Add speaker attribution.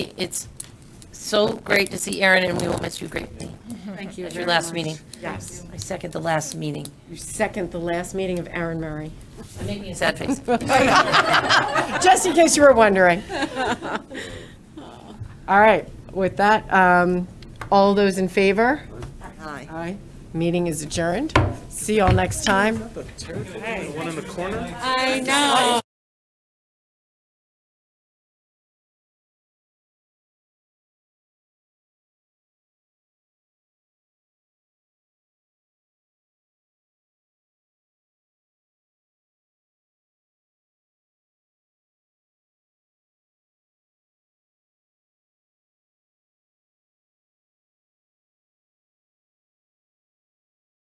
Speaker 1: It's so great to see Erin, and we will miss you greatly.
Speaker 2: Thank you
Speaker 1: At your
Speaker 2: very
Speaker 1: last
Speaker 2: much.
Speaker 1: meeting.
Speaker 2: Yes.
Speaker 1: I second the last meeting.
Speaker 2: You second the last meeting of Aaron Murray.
Speaker 1: I'm making a sad face.
Speaker 2: Just in case you were wondering. All right, with that, um, all those in favor? Aye. Aye. Meeting is adjourned. See you all next time.
Speaker 3: The one in the corner?
Speaker 4: I know.